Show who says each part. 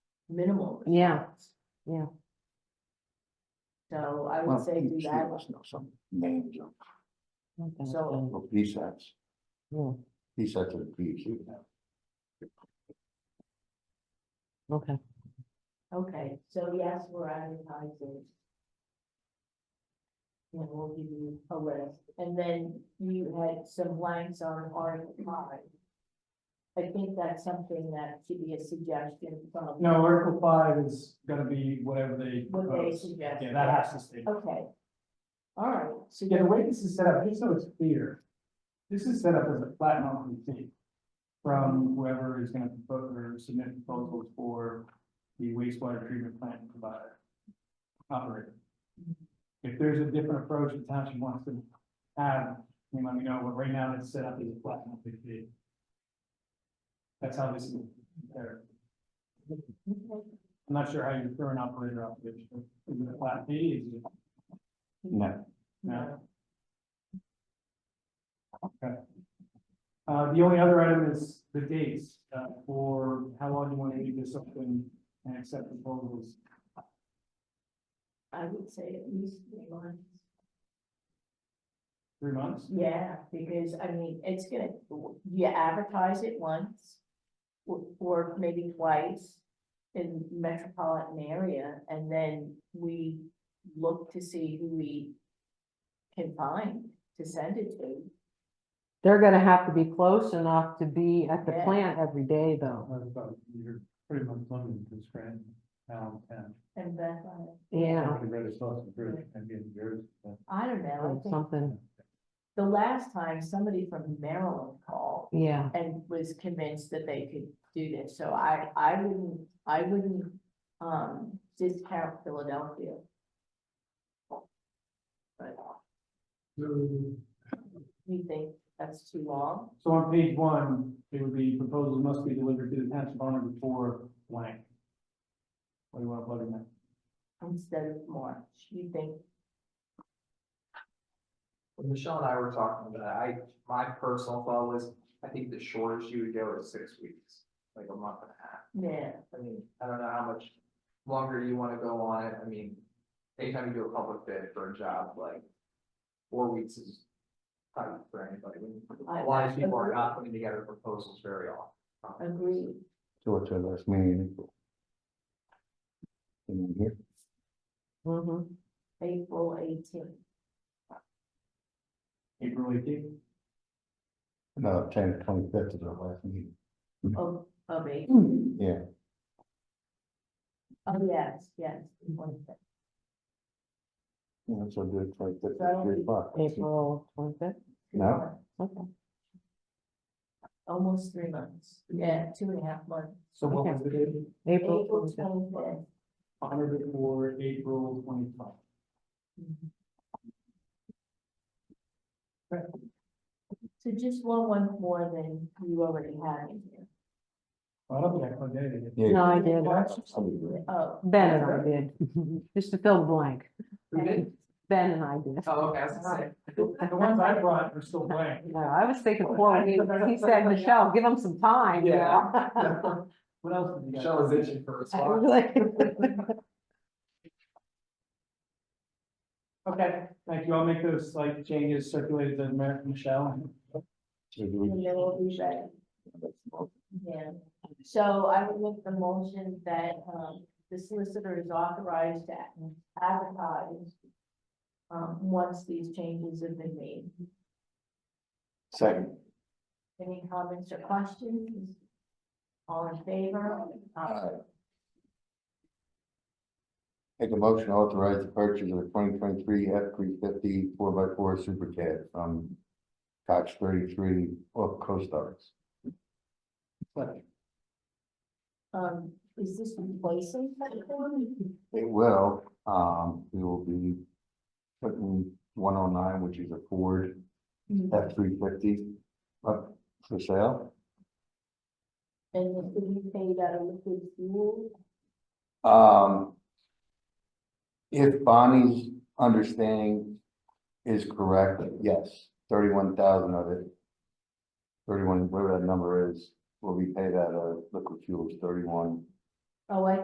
Speaker 1: minimal.
Speaker 2: Yeah,
Speaker 1: response.
Speaker 2: yeah.
Speaker 1: So I would say do that,
Speaker 3: Some names of,
Speaker 2: Okay,
Speaker 1: So-
Speaker 3: of PSATs,
Speaker 2: yeah,
Speaker 3: PSATs are PQ now.
Speaker 2: Okay,
Speaker 1: okay, so yes, we're advertising. And we'll give you a list, and then you had some blanks on Article five. I think that's something that should be a suggestion from
Speaker 4: No, Article five is gonna be whatever they
Speaker 1: what they
Speaker 4: propose.
Speaker 1: suggest.
Speaker 4: Yeah, that has to stay.
Speaker 1: Okay. All right, so
Speaker 4: Yeah, the way this is set up, just so it's clear, this is set up as a flat monthly fee from whoever is gonna propose or submit proposals for the wastewater treatment plant provider operator.
Speaker 1: Mm-hmm.
Speaker 4: If there's a different approach the township wants to have, you let me know, but right now it's set up as a flat monthly fee. That's how this is, there.
Speaker 1: Okay.
Speaker 4: I'm not sure how you throw an operator obligation, is it a flat fee, is it?
Speaker 3: No,
Speaker 4: No. Okay. Uh, the only other item is the dates, uh, for how long you want to leave this open and accept proposals.
Speaker 1: I would say at least three months.
Speaker 4: Three months?
Speaker 1: Yeah, because I mean, it's gonna, you advertise it once or, or maybe twice in metropolitan area, and then we look to see who we can find to send it to.
Speaker 2: they're gonna have to be close enough to be at the
Speaker 1: Yeah.
Speaker 2: plant every day though,
Speaker 5: That's about, you're pretty much limited to Scranton, Allentown.
Speaker 1: And Beth, I-
Speaker 2: yeah,
Speaker 5: The greatest loss of Bruce, maybe in Jersey, but
Speaker 1: I don't
Speaker 2: or
Speaker 1: know, I think
Speaker 2: something,
Speaker 1: the last time somebody from Maryland called
Speaker 2: yeah,
Speaker 1: and was convinced that they could do this, so I, I wouldn't, I wouldn't, um, discount Philadelphia. But you think that's too long?
Speaker 4: So on page one, it would be proposals must be delivered to the township owner before blank. What do you want to plug in there?
Speaker 1: instead of March, you think,
Speaker 6: When Michelle and I were talking about it, I, my personal thought was, I think the shortest you would go is six weeks, like a month and a half.
Speaker 1: yeah,
Speaker 6: I mean, I don't know how much longer you wanna go on it, I mean, anytime you do a public bid for a job, like, four weeks is tight for anybody.
Speaker 1: I-
Speaker 6: A lot of people are
Speaker 1: agree.
Speaker 6: not putting together proposals very often.
Speaker 1: agreed,
Speaker 3: so it's our last meeting in April. And then here,
Speaker 2: mhm.
Speaker 1: April eighteenth,
Speaker 4: April eighteenth?
Speaker 3: no, ten, twenty-fifth is our last meeting,
Speaker 1: of, of eight,
Speaker 3: yeah.
Speaker 1: oh, yes, yes. the 25th.
Speaker 3: Yeah, so do it like that,
Speaker 1: So I don't
Speaker 3: three
Speaker 1: think-
Speaker 3: o'clock.
Speaker 2: April twenty-fifth,
Speaker 3: No.
Speaker 2: okay,
Speaker 1: Almost three months, yeah, two and a half months.
Speaker 4: So what was the date?
Speaker 1: April
Speaker 2: April twenty-fifth,
Speaker 1: twenty-fifth.
Speaker 4: On or before April twenty-five.
Speaker 1: So just one, one more than you already have in here.
Speaker 4: I don't think I plugged anything in.
Speaker 3: Yeah.
Speaker 2: no, I did,
Speaker 3: I'll be great.
Speaker 1: Oh,
Speaker 2: Ben and I did, just to fill the blank,
Speaker 6: Who did?
Speaker 2: Ben and I did.
Speaker 6: Oh, okay, I was gonna say.
Speaker 4: The ones I brought are still blank.
Speaker 2: No, I was thinking, well, he he said, Michelle, give him some time, you
Speaker 6: Yeah.
Speaker 2: know?
Speaker 4: What else did you guys?
Speaker 6: Michelle is itching for a
Speaker 2: I
Speaker 6: response.
Speaker 2: was like-
Speaker 4: Okay, thank you. I'll make those like changes circulated to Mer- Michelle.
Speaker 3: So do
Speaker 1: and then we'll be ready.
Speaker 3: we-
Speaker 1: Yeah, so I would make the motion that, um, the solicitor is authorized to advertise. Um, once these changes have been made.
Speaker 3: Second.
Speaker 1: Any comments or questions? All in favor? Aye.
Speaker 3: Alright. Make a motion to authorize the purchase of a twenty twenty-three F three fifty four by four Super Cab from Cox thirty-three off Coast Guards.
Speaker 1: Um, is this replacing? something?
Speaker 3: It will, um, we will be putting one oh nine, which is a Ford F three fifty up for sale.
Speaker 1: And this will be paid out of liquid fuel?
Speaker 3: Um. If Bonnie's understanding is correct, yes, thirty-one thousand of it. Thirty-one, whatever that number is, will be paid out of liquid fuels, thirty-one
Speaker 1: Oh, I